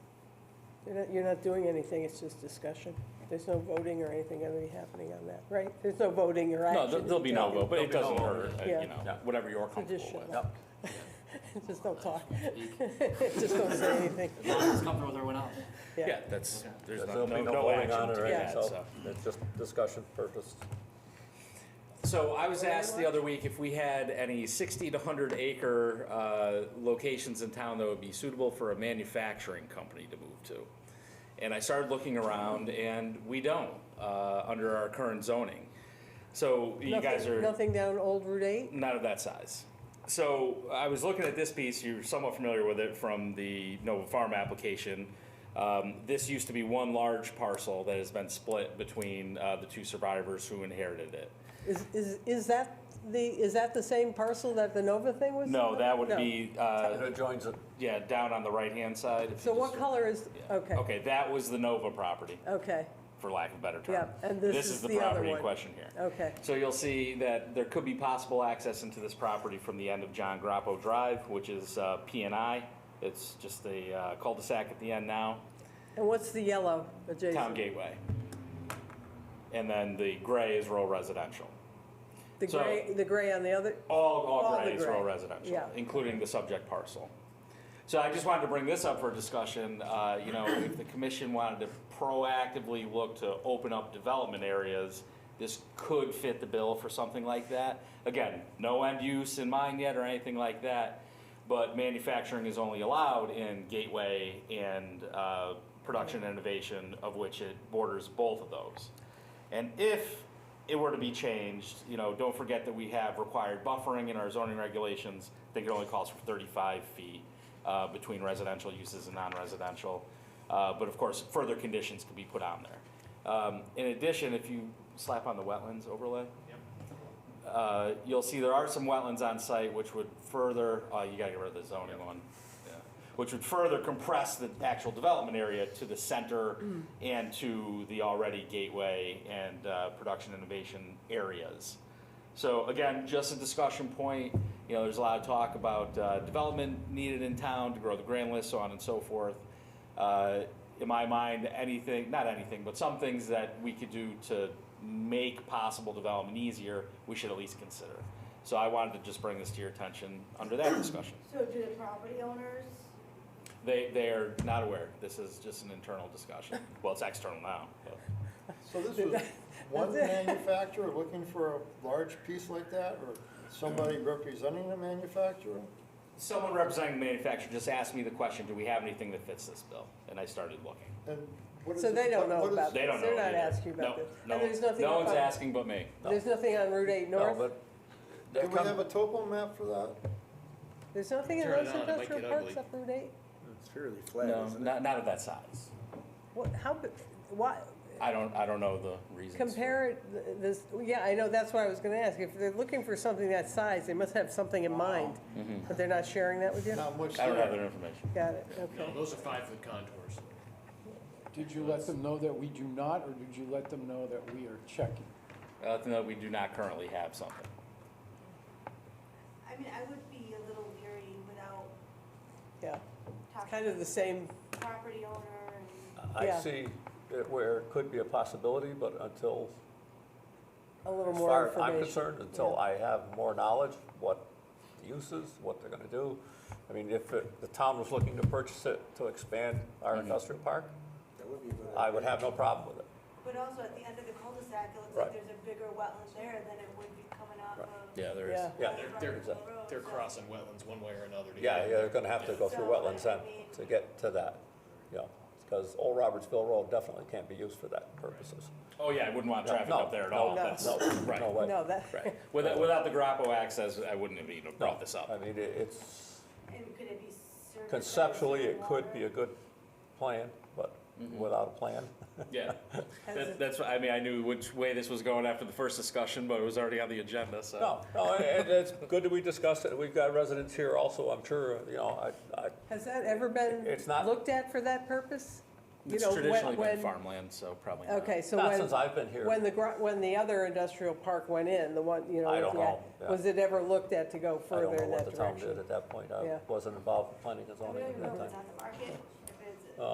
You're not, you're not doing anything, it's just discussion. There's no voting or anything going to be happening on that, right? There's no voting or No, action. there- there'll be no vote, but it There'll doesn't be no hurt, uh, Yeah. you know, whatever you're comfortable Traditional. with. Yep. Just don't talk. Just don't say anything. As long as it's comfortable with everyone else. Yeah, that's, there's There'll no, no be no no voting action on it to or be anything, had, so so. it's just discussion purpose. So I was asked the other week if we had any sixty to hundred acre, uh, locations in town that would be suitable for a manufacturing company to move to. And I started looking around and we don't, uh, under our current zoning. So you guys Nothing- are. Nothing down Old Route 8? not of that size. So I was looking at this piece, you're somewhat familiar with it from the Nova Farm application. Um, this used to be one large parcel that has been split between uh, the two survivors who inherited it. Is, is, is that the, is that the same parcel that the Nova thing was? No, that would No. be, And uh, it joins it. yeah, down on the right-hand side. if you So what just- color is, yeah. okay, Okay, that was the Nova property, okay, for lack of a better term. Yep, and this is is the the other property in one. question here. okay. So you'll see that there could be possible access into this property from the end of John Grappo Drive, which is uh, P&I. It's just a uh, cul-de-sac at the end now, And what's the yellow Town adjacent? Gateway. And then the gray is rural residential. The so- gray, the gray on the other, All, All all the gray is rural gray, residential, yeah. including the subject parcel. So I just wanted to bring this up for discussion, uh, you know, if the commission wanted to proactively look to open up development areas, this could fit the bill for something like that. Again, no end use in mind yet or anything like that, but manufacturing is only allowed in Gateway and uh, Production Innovation, of which it borders both of those. And if it were to be changed, you know, don't forget that we have required buffering in our zoning regulations. I think it only calls for thirty-five feet uh, between residential uses and non-residential. Uh, But of course, further conditions could be put on there. Um, In addition, if you slap on the wetlands overlay, uh, you'll see there are some wetlands on site which would further, oh, you gotta get rid of the zoning one. Yeah. Which would further compress the actual development area to the center and to the already gateway and, uh, production innovation areas. So again, just a discussion point, you know, there's a lot of talk about, uh, development needed in town to grow the grand list, so on and so forth. Uh, in my mind, anything, not anything, but some things that we could do to make possible development easier, we should at least consider. So I wanted to just bring this to your attention under that discussion. So do the property owners, They, they are not aware, this is just an internal discussion, well, it's external now, but. So this was one manufacturer looking for a large piece like that, or somebody representing the manufacturer? Someone representing the manufacturer just asked me the question, do we have anything that fits this bill? And I started looking. And what is So it- they don't what- know what is- about They don't know. They're not either. asking about No, this. And No, there's nothing no up one's on- asking but me. there's nothing on Route 8 No, North? but Do we have a topo map for that? There's nothing in Turn it those on, it might industrial get parks ugly. up Route 8? It's fairly flat, No, isn't it? not, not of that size. What, how, big- why, I don't, I don't know the reasons. for- compare it, th- this, yeah, I know, that's why I was gonna ask. If they're looking for something that size, they must have something in mind, Mm-hmm. but they're not sharing that with you? Not much I don't have there. that information. Got it, okay. No, those are five-foot contours. Did you let them know that we do not, or did you let them know that we are checking? Uh, no, we do not currently have something. I mean, I would be a little leery without Yeah, kind talking of the same, to the property owner and, I Yeah. see it where it could be a possibility, but until, a little as more far as information. I'm concerned, until I have more knowledge, what the use is, what they're gonna do. I mean, if it- the town was looking to purchase it to expand our industrial park, That would be a good idea. I would have no problem with it. but also at the end of the cul-de-sac, it looks Right. like there's a bigger wetland there than it would be coming off Right. of. Yeah, there Yeah. is. Yeah, Road, They're- Rumble Road, They're so- crossing wetlands one way or another. to get Yeah, in yeah, there. they're gonna have to go through wetlands then to get to that, you know, because Old Robertsville Road definitely can't be used for that purposes. Oh, yeah, I wouldn't want traffic No, up there at no, all. no, That's- No, Right, no way. No, that, right. Without, without the Grappo access, I wouldn't have even brought this I up. mean, it- it's, And could it be certified? conceptually, it could be a water? good plan, but without a plan, Yeah. That, that's, what- I mean, I knew which way this was going after the first discussion, but it was already on the agenda, so. no, no, and it's good that we discussed it, we've got residents here also, I'm sure, you know, I, I, has that ever been It's not- looked at for that purpose? You It's know, traditionally when- been when- farmland, so probably not. Okay, so not since when, I've been here. when the, gro- when the other industrial park went in, the one, you know. I with don't the- know, yeah. Was it ever looked at to go I don't further know in what that the town did direction? at that point, Yeah. I wasn't involved in planning and I zoning don't at even know that if time. it's on the market.